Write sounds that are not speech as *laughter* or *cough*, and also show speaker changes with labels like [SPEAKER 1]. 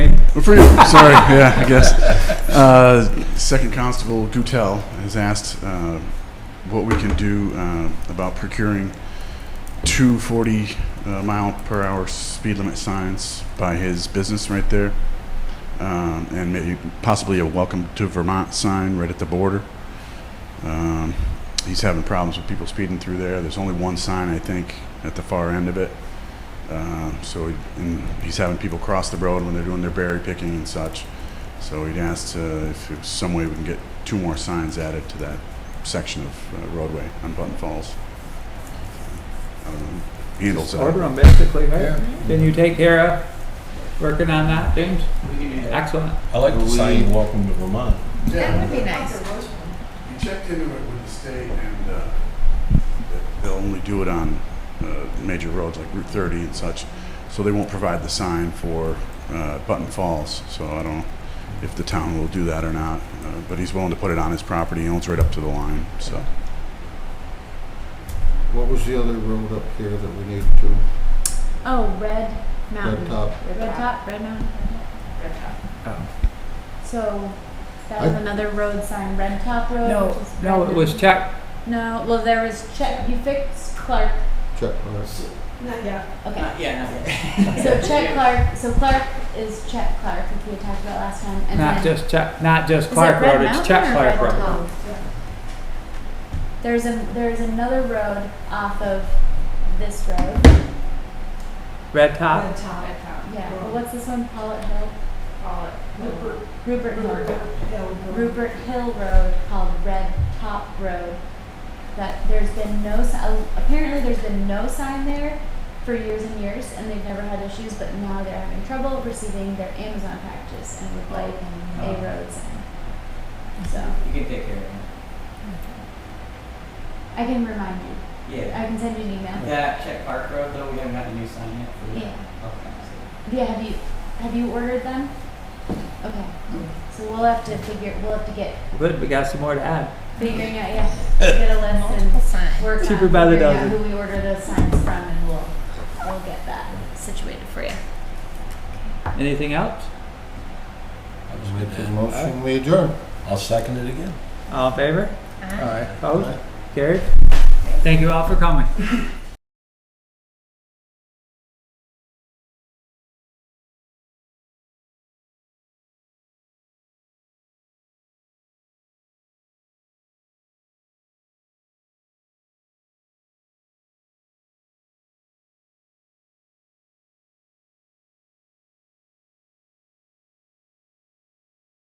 [SPEAKER 1] But for you, *laughs* sorry, yeah, I *laughs* guess. Uh, Second Constable Gutel has asked uh, what we can do uh, about procuring two 40 uh, mile per hour speed limit signs by his business right there, um, and maybe possibly a Welcome to Vermont sign right at the border. Um, he's having problems with people speeding through there. There's only one sign, I think, at the far end of it. Um, So he- and he's having people cross the road when they're doing their berry picking and such. So he'd asked uh, if there's some way we can get two more signs added to that section of uh, roadway on Button Falls. I don't know who Handles
[SPEAKER 2] Order them
[SPEAKER 1] that.
[SPEAKER 2] basically, right? Can you take care of working on that, James? Excellent.
[SPEAKER 3] I like the sign, welcome to Vermont.
[SPEAKER 4] That would be nice.
[SPEAKER 1] He checked into it with the state and uh, that they'll only do it on uh, major roads like Route 30 and such. So they won't provide the sign for uh, Button Falls. So I don't know if the town will do that or not. uh, But he's willing to put it on his property. He owns right up to the line, so.
[SPEAKER 5] What was the other road up here that we need to,
[SPEAKER 4] Oh, Red Mountain.
[SPEAKER 5] Red Top?
[SPEAKER 4] Red Top, Red Mountain. Red Top.
[SPEAKER 2] Oh.
[SPEAKER 4] So that
[SPEAKER 5] I-
[SPEAKER 4] was another road sign, Red Top Road.
[SPEAKER 2] No,
[SPEAKER 4] which is
[SPEAKER 2] no,
[SPEAKER 4] Red
[SPEAKER 2] it was checked.
[SPEAKER 4] Mountain. No, well, there was Check, you fixed Clark.
[SPEAKER 5] check marks?
[SPEAKER 4] Yeah. Okay. So Check Clark, so Clark is Check Clark, which we had talked about last time. and
[SPEAKER 2] Not
[SPEAKER 4] then-
[SPEAKER 2] just check, not just
[SPEAKER 4] Is it
[SPEAKER 2] Clark
[SPEAKER 4] Red
[SPEAKER 2] Road, it's
[SPEAKER 4] Mountain
[SPEAKER 2] check
[SPEAKER 4] or
[SPEAKER 2] Clark
[SPEAKER 4] Red
[SPEAKER 2] Road.
[SPEAKER 4] Top? There's a, there's another road off of this road.
[SPEAKER 2] Red top?
[SPEAKER 4] Yeah, well, what's this one? Pollitt Hill? Pollitt. Rupert Hill. Rupert Hill Road called Red Top Road. That, there's been no, si- uh, apparently there's been no sign there for years and years, and they've never had issues, but now they're having trouble receiving their Amazon packages and would like a road sign. So,
[SPEAKER 6] You can take care of it.
[SPEAKER 4] I can remind you,
[SPEAKER 6] Yeah.
[SPEAKER 4] I can send you an email.
[SPEAKER 6] That check Park Road though, we haven't got the new sign yet for that.
[SPEAKER 4] Yeah.
[SPEAKER 6] Okay.
[SPEAKER 4] Yeah, have you, have you ordered them? Okay, so we'll have to figure, we'll have to get
[SPEAKER 2] Good, we got some more to add.
[SPEAKER 4] figuring out, yeah, get a list and work on
[SPEAKER 2] Cheaper by the
[SPEAKER 4] figuring out
[SPEAKER 2] dozen.
[SPEAKER 4] who we order those signs from, and we'll we'll get that situated for you.
[SPEAKER 2] Anything else?
[SPEAKER 5] Make a motion, we adjourn.
[SPEAKER 3] I'll second it again.
[SPEAKER 2] All in favor?
[SPEAKER 5] Aye.
[SPEAKER 2] Opposed? Carried? Thank you all for coming.